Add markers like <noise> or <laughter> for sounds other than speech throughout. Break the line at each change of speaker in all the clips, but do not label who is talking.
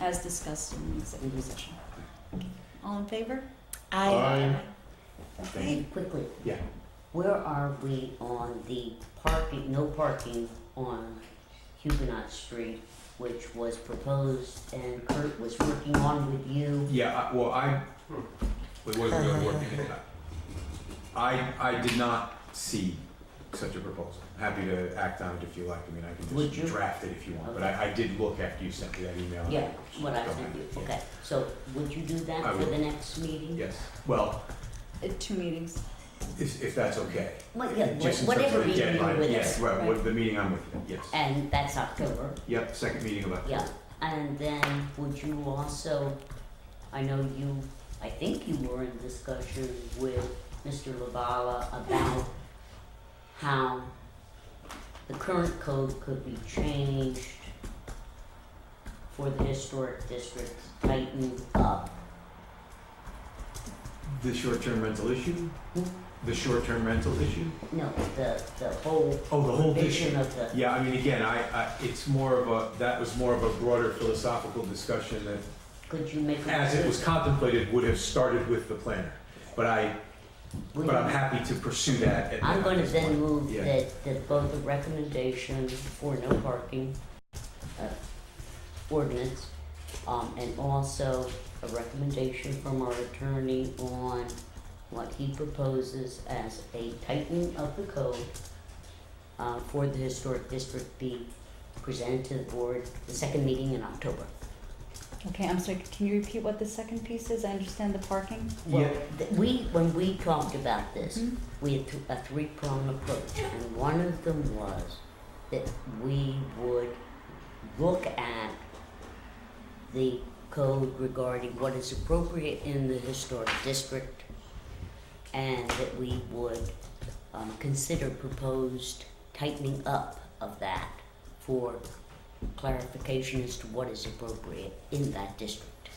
as discussed in the executive session. All in favor?
Aye.
Okay.
Quickly.
Yeah.
Where are we on the parking, no parking on Huguenot Street, which was proposed and Kurt was working on with you?
Yeah, I- well, I, it wasn't really working. I, I did not see such a proposal. Happy to act on it if you like. I mean, I can
Would
just
you?
draft it if you want, but I, I did look after you sent me that email.
Yeah, what I
Okay,
sent you,
yeah.
okay, so would you do
I
that for
will.
the next meeting?
Yes, well,
Uh, Two meetings.
if, if that's okay.
Well, yeah,
Just in terms
whatever
of the
meeting
deadline,
you're with
Yes,
us,
right, with the meeting I'm with, you, yes.
and that's October,
Yep, second meeting of October.
yeah, and then would you also, I know you, I think you were in discussion with Mr. Lavala about how the current code could be changed for the historic district, tightened up,
The short-term rental issue?
Hmm?
The short-term rental issue?
no, the, the whole
Oh, the whole issue.
vision of the,
Yeah, I mean, again, I, I, it's more of a, that was more of a broader philosophical discussion that
could you make a
as it was contemplated, would have started with the planner. But I,
would
but
you-
I'm happy to pursue that at
I'm
at
gonna
this
then
point.
move
Yeah.
that, that both the recommendation for no parking, uh, ordinance, um, and also a recommendation from our attorney on what he proposes as a tightening of the code, uh, for the historic district be presented to the board, the second meeting in October.
Okay, I'm sorry, can you repeat what the second piece is? I understand the parking.
Well,
Yeah.
th- we, when we talked about this,
Mhm.
we had th- a three-pronged approach, and one of them was that we would look at the code regarding what is appropriate in the historic district, and that we would um, consider proposed tightening up of that for clarification as to what is appropriate in that district.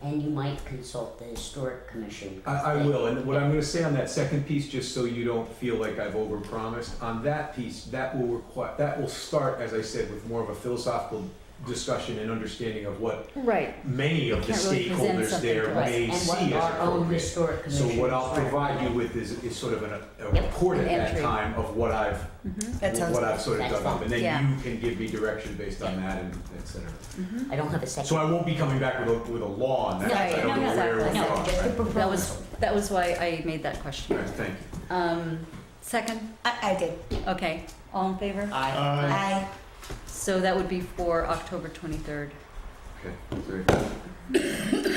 And you might consult the historic commission.
I, I will, and what I'm gonna say on that second piece, just so you don't feel like I've overpromised, on that piece, that will require, that will start, as I said, with more of a philosophical discussion and understanding of what
Right.
many of the
Can't really present
stakeholders
something
there
to us.
may
And what
see as
our own
appropriate.
historic
So
commission.
what I'll provide you with is, is sort of an- a
Yep,
report at
an
that
entry.
time of what I've,
Mm-hmm.
That sounds
what I've sort of
That's
dug up,
fine.
and then
Yeah.
you can give me direction based on that and et cetera.
mm-hmm.
I don't have a second.
So I won't be coming back with a, with a law on that,
No,
I don't
no,
know where
exactly.
we
No,
are.
just the
right?
proposal.
That was, that was why I made that question.
Right, thank you.
Um, second,
I, I did.
okay, all in favor?
I,
Uh,
Aye.
I,
So that would be for October twenty-third.
Okay, very good.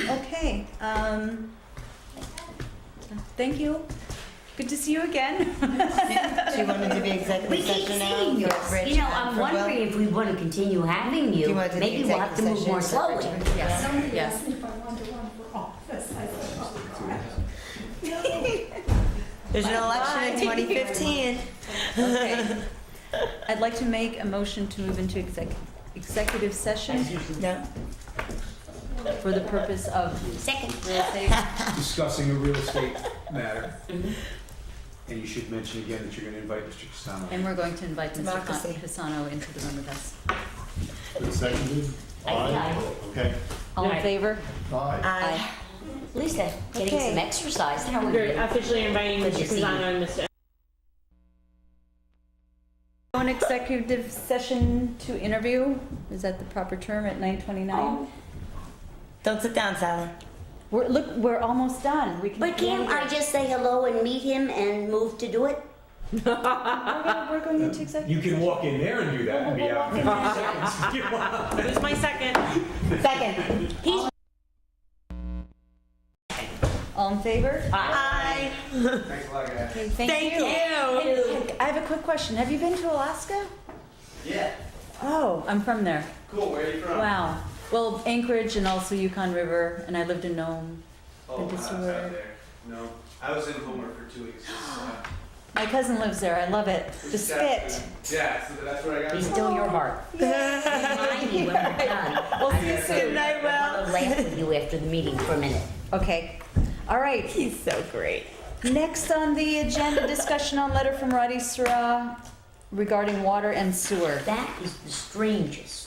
Okay, um, thank you. Good to see you again. <laughs>
do you want to do the executive
we keep
session now?
seeing you.
with Rich
You know,
and
I'm
for Will?
wondering if we want to continue having
Do
you.
you want to do the
Maybe we'll have to
executive
move more slowly.
session for Rich and
Yes.
Will?
Somebody
Yes.
asked me if I wanted to run for office. I said, oh,
There's an election
Bye.
<laughs>
in 2015.
Okay. <laughs> I'd like to make a motion to move into exec- executive session
No.
for the purpose of
Second.
real <laughs> estate.
Discussing a real estate matter. And you should mention again that you're gonna invite Mr. Castano.
And we're going to invite Mr.
Democracy.
Con- Pisano into the room with us.
Seconded?
Aye. Aye.
Okay.
All in
Aye.
favor?
Aye.
I.
Lisa, getting
Okay.
some exercise. How are
You're
you?
officially inviting
Good to
Mr.
see you.
Pisano and Mr.
Go in executive session to interview, is that the proper term, at nine twenty-nine?
Don't sit down, Sally.
We're, look, we're almost done, we can.
But can't I just say hello and meet him and move to do it?
We're gonna- We're going into
You
executive.
can walk in there and do that and be
<laughs>
out.
We'll walk in there.
Who's my second?
Second.
All in favor?
I.
Thanks a lot, guys.
Okay, thank
Thank
you.
you.
I have a quick question, have you been to Alaska?
Yeah,
Oh, I'm from there.
cool. Where are you from?
Wow. Well, Anchorage and also Yukon River, and I lived in Nome.
Oh,
Good to
I was
see
out
you.
there. No, I was in Homer for two
<gasps>
weeks. Uh,
My cousin lives there. I love it. The spit.
Yeah, so that's where I got.
Be
it.
still your <laughs> heart. Remind me when we're done.
We'll see you soon. Good night,
I'll
Will.
laugh with you after the meeting for a minute.
Okay. All right.
He's so great.
Next on the agenda, discussion on letter from Roddy Sura regarding water and sewer.
That is the strangest